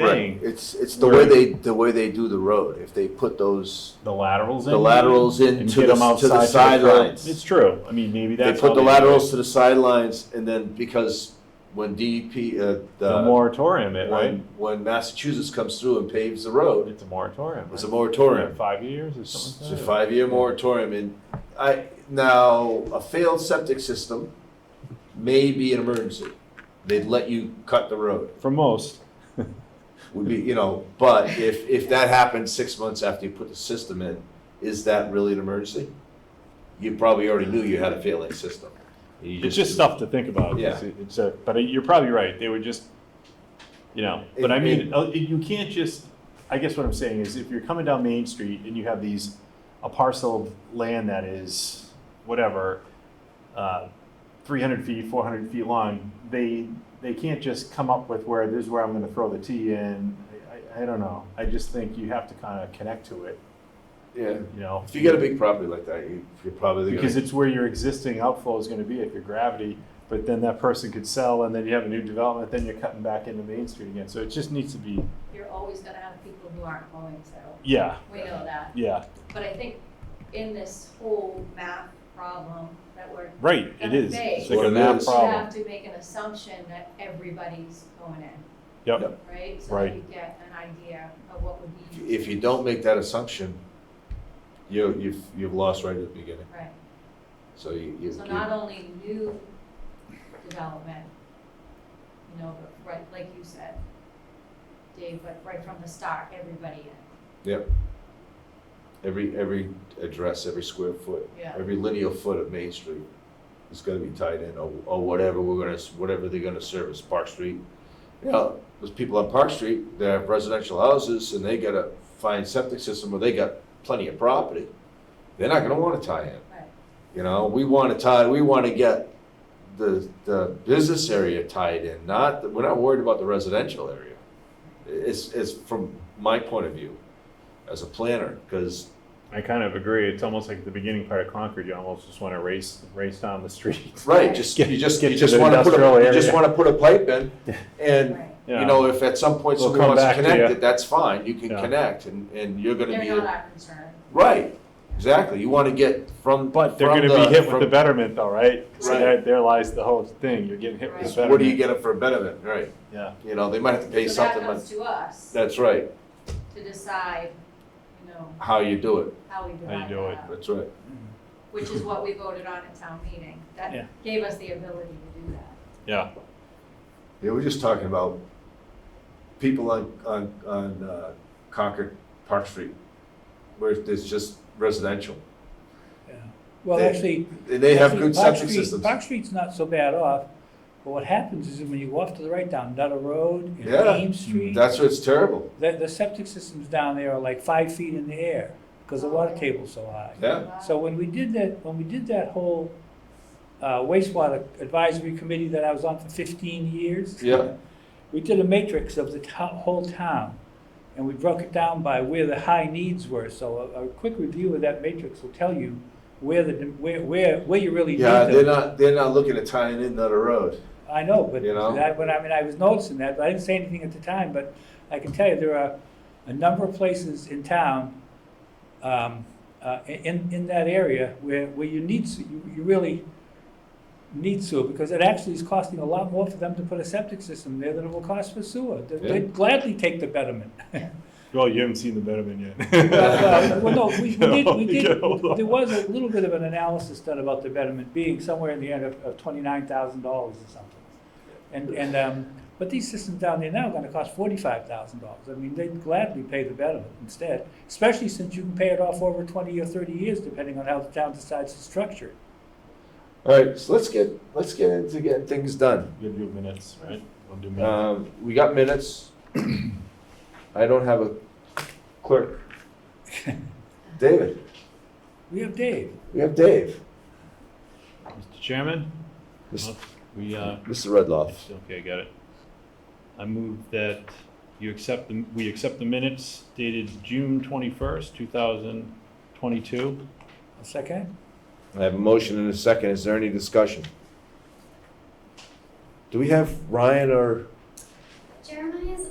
thing, It's, it's the Where- way they, the way they do the road. If they put those, the laterals in. the laterals and into get the, them outside to the curb. It's sidelines. true. I mean, maybe They that's. how put the do it. laterals to the sidelines and then because when DEP, uh, The the, moratorium, it, right? when, when Massachusetts comes through and paves the road, It's a moratorium. it's a right? moratorium. Five years or It's something a like that? five-year moratorium, and I, now, a failed septic system may be an emergency. They'd let you cut the road, For most, would be, you know, but if, if that happens six months after you put the system in, is that really an emergency? You probably already knew you had a failing system. You it's just stuff to think about. Yeah. It's- It's a, but you're probably right. They would just, you know, but I It- mean, it- uh, you can't just, I guess what I'm saying is if you're coming down Main Street and you have these, a parcel of land that is whatever, uh, 300 feet, 400 feet long, they, they can't just come up with where, this is where I'm going to throw the T in. I, I- I don't know. I just think you have to kind of connect to it, Yeah, you know? if you get a big property like that, you, you're probably gonna. Because it's where your existing outflow is gonna be if your gravity, but then that person could sell and then you have a new development, then you're cutting back into Main Street again. So it just needs to be, you're always gonna have people who aren't going, so yeah, we know that. yeah, But I think in this whole math problem that we're, right, it is. It's like a Well, it math is. you problem. have to make an assumption that everybody's going in, Yep, right? So that Right. you get an idea of what would be. If you don't make that assumption, you, you've, you've lost right at the beginning, Right, so you. you- so you- not only new development, you know, but right, like you said, Dave, but right from the start, everybody in, Yep. Every, every address, every square foot, yeah, every linear foot of Main Street is gonna be tied in, or, or whatever we're gonna, whatever they're gonna service, Park Street. You know, those people on Park Street, they have residential houses, and they got a fine septic system, where they got plenty of property. They're not gonna wanna tie in, right, you know, we wanna tie, we wanna get the, the business area tied in, not, we're not worried about the residential area. It's, it's from my point of view, as a planner, because I kind of agree. It's almost like the beginning part of Concord, you almost just wanna race, race down the street. Right, just, you just, get you to just the wanna put industrial a, you just area. wanna put a pipe in, and, right. Yeah. you know, if at some point We'll someone come wants to back to connect ya. it, that's fine, you can Yeah. connect, and, and you're gonna They're be, not a- our concern. right, exactly, you wanna get from, But they're from gonna be hit with the from- betterment though, right? So Right. there, there lies the whole thing. You're getting hit with the Right. betterment. What do you get for a benefit, right, Yeah, you know, they might have to pay So that something, comes but, to us that's right, to decide, you know, how you do it, how we How you divide do it. that up, that's right. which is what we voted on at town meeting. Yeah. That gave us the ability to do that. yeah, Yeah, we're just talking about people on, on, on uh, Concord Park Street, where there's just residential, Well, They- actually. and they have actually, good Park septic Street- systems. Park Street's not so bad off, but what happens is when you go off to the right down Nutter Road and Yeah. Ames Street, the, That's what's terrible, the septic systems down there are like five feet in the air because the water table's so high. yeah. So when we did that, when we did that whole uh, wastewater advisory committee that I was on for fifteen years. Yeah. We did a matrix of the to- whole town, and we broke it down by where the high needs were. So a, a quick review of that matrix will tell you where the, where, where, where you really need Yeah, they're them. not, they're not looking at tying in another road. I know, but you know? that, but I mean, I was noticing that, but I didn't say anything at the time, but I can tell you, there are a number of places in town, um, uh, in, in that area where, where you need, se- you, you really need sewer, because it actually is costing a lot more for them to put a septic system there than it will cost for sewer. They- They'd gladly take the betterment. well, you haven't seen the betterment yet. uh, Well, well, no, we we did, we Get did, hold on. there was a little bit of an analysis done about the betterment being somewhere in the end of, of twenty-nine thousand dollars or something. And, and, um, but these systems down there now are gonna cost forty-five thousand dollars. I mean, they'd gladly pay the betterment instead, especially since you can pay it off over twenty or thirty years, depending on how the town decides to structure it. All right, so let's get, let's get into getting things done. We'll do minutes, right? We'll do minutes. Um, we got minutes. I don't have a clerk. David, We have Dave. we have Dave, Mr. Chairman? Mis- We, uh, Mr. Redloff. okay, I got it. I move that you accept, the we accept the minutes dated June 21st, 2022. A second? I have a motion and a second. Is there any discussion? Do we have Ryan or? Jeremiah's